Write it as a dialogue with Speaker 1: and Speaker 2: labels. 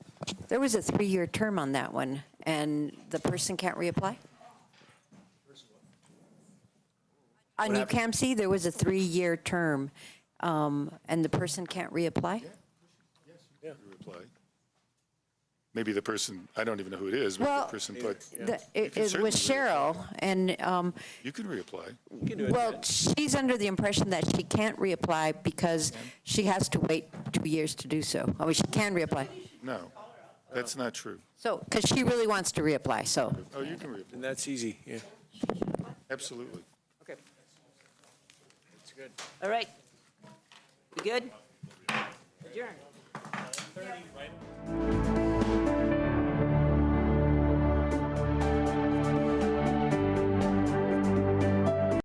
Speaker 1: There was a three-year term on that one, and the person can't reapply? On New Campsie, there was a three-year term, um, and the person can't reapply?
Speaker 2: reply. Maybe the person, I don't even know who it is, but
Speaker 1: Well,
Speaker 2: the person put,
Speaker 1: the- it
Speaker 2: can
Speaker 1: it was
Speaker 2: certainly
Speaker 1: Cheryl, and, um,
Speaker 2: you can reapply.
Speaker 1: well, she's under the impression that she can't reapply because she has to wait two years to do so. I mean, she can reapply.
Speaker 2: No, that's not true.
Speaker 1: So, because she really wants to reapply, so.
Speaker 2: Oh, you can reapply,
Speaker 3: And that's easy, yeah.
Speaker 2: absolutely.
Speaker 4: Okay. That's good. All right. You good? Adjourned.